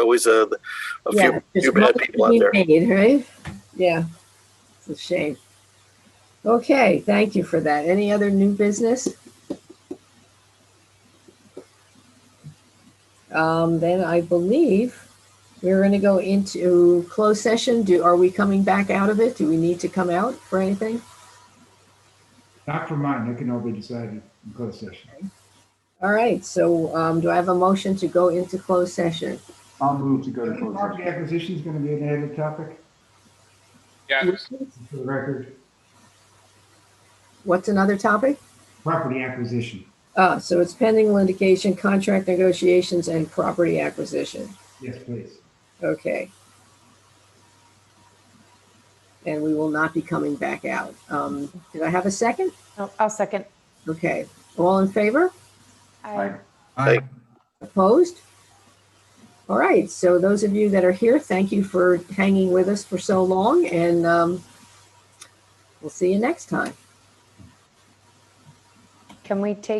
always a, a Yeah, few, there's few bad money people to out be there. made, Right? Yeah, it's a shame. Okay, thank you for that. Any other new business? Um, then I believe we're gonna go into closed session. Do, are we coming back out of it? Do we need to come out for anything? Not for mine, that can all be decided in closed session. All right, so, um, do I have a motion to go into closed session? I'll move to go to closed Property session. acquisition is going to be an added topic Yes, for the record, What's another topic? property acquisition. Uh, so it's pending litigation, contract negotiations and property acquisition. Yes, please. Okay. And we will not be coming back out. Um, did I have a second? Oh, I'll I'll second. Okay. All in favor? Aye. Opposed? All right. So those of you that are here, thank you for hanging with us for so long and, um, we'll see you next time. Can we take